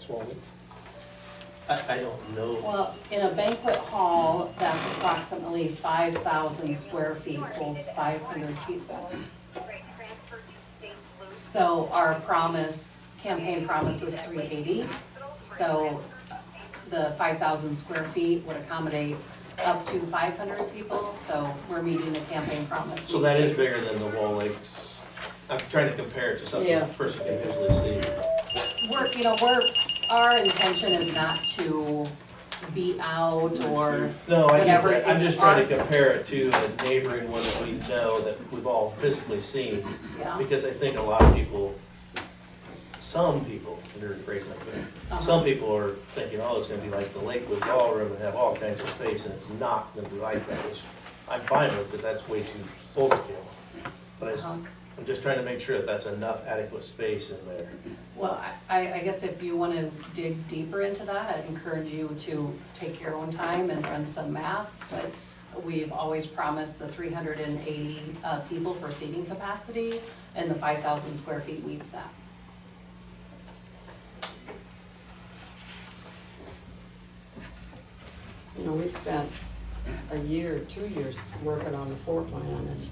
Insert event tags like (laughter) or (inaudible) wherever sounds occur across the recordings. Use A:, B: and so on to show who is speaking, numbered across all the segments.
A: twenty?
B: I, I don't know.
C: Well, in a banquet hall, that's approximately five thousand square feet, holds five hundred people. So our promise, campaign promise was three eighty, so the five thousand square feet would accommodate up to five hundred people, so we're meeting the campaign promise.
B: So that is bigger than the Wall Lakes. I'm trying to compare it to something
C: Yeah.
B: the person can visually see.
C: We're, you know, we're, our intention is not to be out or,
B: No, I get
C: Whatever
B: that. I'm
C: it's
B: just trying to
C: on.
B: compare it to a neighboring one that we know that we've all physically seen.
C: yeah,
B: Because I think a lot of people, some people, under phrase like that, some people are thinking, oh, it's gonna be like the Lakewood Ballroom and have all kinds of space, and it's not gonna be like that, which I'm fine with, because that's way too overkill. But I just-
C: Uh-huh.
B: I'm just trying to make sure that that's enough adequate space in there.
C: well, I, I guess if you wanna dig deeper into that, I'd encourage you to take your own time and run some math, but we've always promised the three hundred and eighty, uh, people for seating capacity, and the five thousand square feet meets that.
D: You know, we spent a year, two years working on the floor plan and,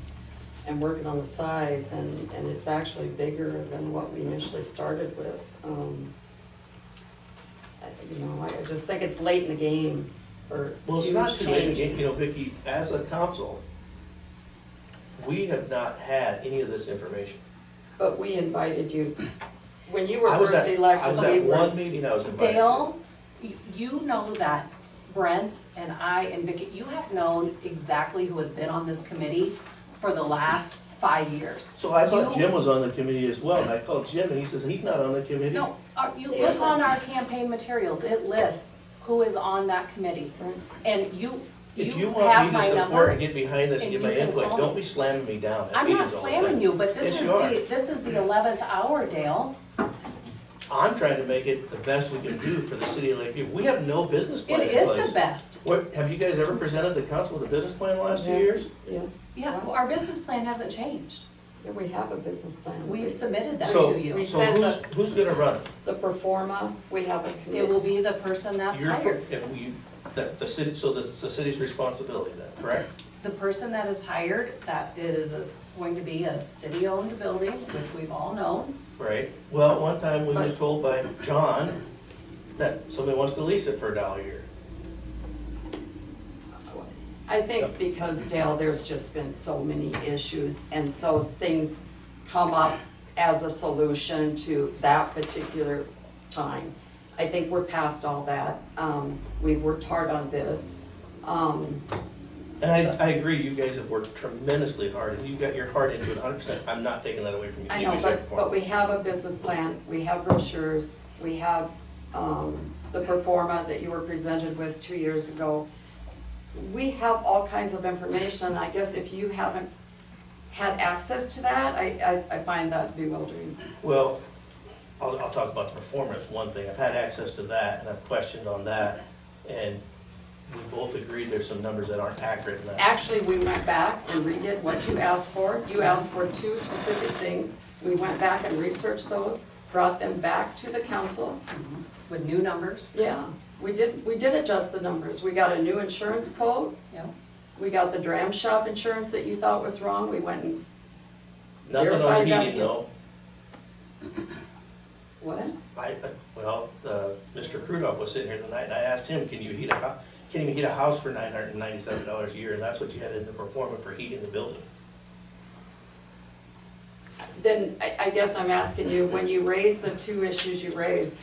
D: and working on the size and, and it's actually bigger than what we initially started with. Um, I- You know, I just think it's late in the game for
B: Well, it's
D: huge
B: not too late,
D: change.
B: you know, Vicky, as a council, we have not had any of this information.
D: But we invited you, when you were
B: I was at,
D: first
B: I
D: elected,
B: was
D: we
B: at
D: were,
B: one meeting I was invited to.
C: Dale, y- you know that Brent and I and Vicky, you have known exactly who has been on this committee for the last five years.
B: So I thought
C: You-
B: Jim was on the committee as well, and I called Jim, and he says he's not on the committee.
C: No, uh, you
D: He
C: look
D: isn't.
C: on our campaign materials, it lists who is on that committee. And you,
B: If you
C: you
B: want
C: have
B: me to
C: my
B: support and
C: number.
B: get behind this and give
C: and you
B: my
C: can
B: input,
C: call
B: don't
C: me.
B: be slamming me down at
C: I'm not
B: meetings all the time.
C: slamming you, but this
B: Yes,
C: is
B: you are.
C: the, this is the eleventh hour, Dale.
B: I'm trying to make it the best we can do for the city of Lakeview. We have no business
C: It
B: plan in place.
C: is the best.
B: What, have you guys ever presented the council with a business plan in the last two
D: Yes.
B: years?
D: yes,
C: Yeah, well, our business plan hasn't changed.
D: Yeah, we have a business plan.
C: We've submitted that
B: So,
C: to you.
D: We
B: so
D: sent
B: who's, who's gonna run it?
D: The performa, we have a committee.
C: It will be the person that's
B: Your-
C: hired.
B: If you, the, the city, so that's the city's responsibility then, correct?
C: The person that is hired, that is, is going to be a city-owned building, which we've all known.
B: Right, well, one time we was told by John that somebody wants to lease it for a dollar a year.
D: I think because Dale, there's just been so many issues and so things come up as a solution to that particular time. I think we're past all that. Um, we've worked hard on this. Um,
B: And I, I agree, you guys have worked tremendously hard, and you got your heart into it hundred percent, I'm not taking that away from you.
D: I
B: You
D: know,
B: guys are
D: but, but we have a business plan, we have brochures, we have, um, the performa that you were presented with two years ago. We have all kinds of information, and I guess if you haven't had access to that, I, I, I find that bewildering.
B: Well, I'll, I'll talk about the performance, one thing, I've had access to that, and I've questioned on that, and we both agreed there's some numbers that aren't accurate in that.
D: Actually, we went back and redid what you asked for. You asked for two specific things. We went back and researched those, brought them back to the council.
C: With new numbers,
D: Yeah, we did, we did adjust the numbers. We got a new insurance code.
C: you know,
D: We got the dram shop insurance that you thought was wrong, we went and,
B: Nothing on
D: verified that
B: heating
D: you-
B: though,
D: what?
B: I, I- well, uh, Mr. Crudoff was sitting here the night, and I asked him, can you heat a hou, can you heat a house for nine hundred and ninety-seven dollars a year, and that's what you had in the performance for heating the building.
D: Then, I, I guess I'm asking you, when you raised the two issues you raised,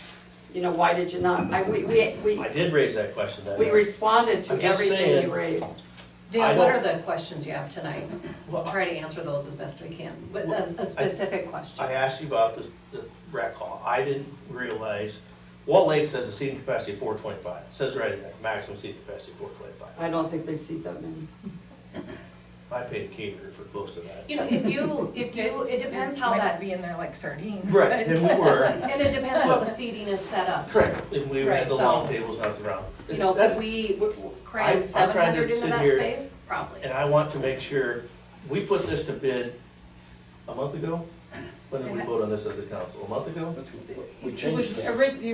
D: you know, why did you not, I, we, we, we,
B: I did raise that question that
D: we
B: night.
D: responded to
B: I'm just
D: everything
B: saying.
D: you raised.
B: I
C: Dale, what are
B: don't-
C: the questions you have tonight?
B: Well,
C: Try to answer those as best we can, with a, a specific question.
B: I asked you about the, the rec hall, I didn't realize, Wall Lake says a seating capacity of four twenty-five, says right in there, maximum seating capacity four twenty-five.
D: I don't think they see that many.
B: I paid a caterer for most of that.
C: You know, if you, if you, it depends how
E: Might
C: that.
E: Be in there like sardines.
B: Right,
E: but-
B: and we were,
C: And it depends how the seating is set up.
B: correct, and we had
C: Right,
B: the
C: so-
B: long tables, not the round.
C: You know,
B: That's-
C: could we
B: I- I'm
C: cram
B: trying
C: seven
B: to
C: hundred into
B: sit
C: that
B: here
C: space? Probably.
B: And I want to make sure, we put this to bid a month ago? When did we vote on this as a council? A month ago?
A: We
E: It
A: changed
E: (laughs) was
A: that.
E: orig- the